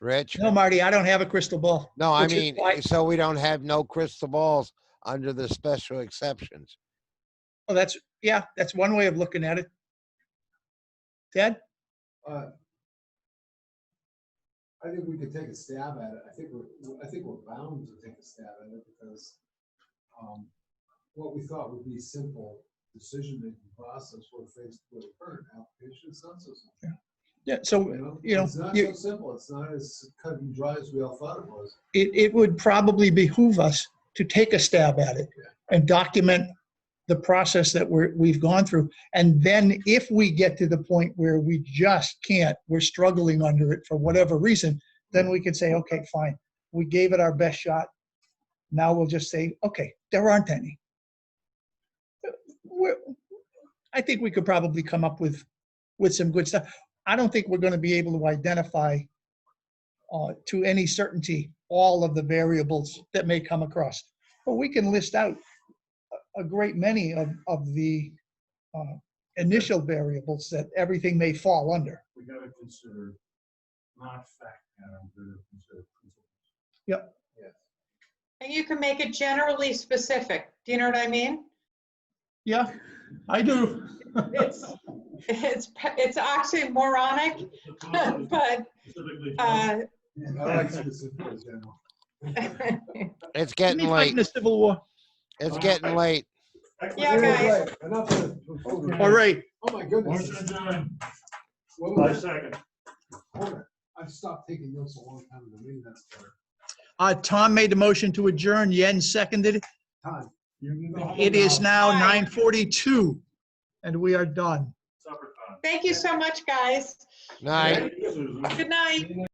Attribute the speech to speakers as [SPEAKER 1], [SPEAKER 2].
[SPEAKER 1] Rich?
[SPEAKER 2] No, Marty, I don't have a crystal ball.
[SPEAKER 1] No, I
[SPEAKER 2] Which is
[SPEAKER 1] mean, eh,
[SPEAKER 2] why-
[SPEAKER 1] so we don't have no crystal balls under the special exceptions.
[SPEAKER 2] Well, Oh, that's, yeah, that's one way of looking at it. Ted?
[SPEAKER 3] Uh, I think we could take a stab at it. I think we're, I think we're bound to take a stab at it because um, what we thought would be simple decision-making process we're faced with current application census.
[SPEAKER 2] Yeah, so, you know,
[SPEAKER 3] It's not
[SPEAKER 2] you-
[SPEAKER 3] so simple. It's not as cut and dry as we all thought it was.
[SPEAKER 2] it, it would probably behoove us to take a stab at it and document the process that we're, we've gone through. And then if we get to the point where we just can't, we're struggling under it for whatever reason, then we can say, okay, fine, we gave it our best shot. Now we'll just say, okay, there aren't any. We're, I think we could probably come up with, with some good stuff. I don't think we're going to be able to identify uh, to any certainty all of the variables that may come across. But we can list out a- a great many of, of the uh, initial variables that everything may fall under.
[SPEAKER 4] we gotta consider not fact patterns, we gotta consider principles.
[SPEAKER 5] And you can make it generally specific. Do you know what I mean?
[SPEAKER 2] Yeah, I do.
[SPEAKER 5] It's, it's, pa- it's oxymoronic,
[SPEAKER 4] The concept is
[SPEAKER 5] but,
[SPEAKER 4] specifically-
[SPEAKER 5] uh,
[SPEAKER 3] I like specific example.
[SPEAKER 1] It's getting late.
[SPEAKER 2] the Civil War.
[SPEAKER 1] It's getting late.
[SPEAKER 5] Yeah, guys.
[SPEAKER 3] Right, Enough of. it.
[SPEAKER 2] All right,
[SPEAKER 3] Oh, my goodness.
[SPEAKER 4] Motion adjourned.
[SPEAKER 3] What
[SPEAKER 4] Five
[SPEAKER 3] was that?
[SPEAKER 4] seconds.
[SPEAKER 3] Hold it. I've stopped taking notes a long time ago. Maybe that's better.
[SPEAKER 2] uh, Tom made the motion to adjourn, Yen seconded it.
[SPEAKER 3] Time.
[SPEAKER 4] You can go home
[SPEAKER 2] It is now
[SPEAKER 5] Aye.
[SPEAKER 2] 9:42 and we are done.
[SPEAKER 4] Supper time.
[SPEAKER 5] thank you so much, guys.
[SPEAKER 1] Night.
[SPEAKER 4] Thank you, Susan.
[SPEAKER 5] Good night.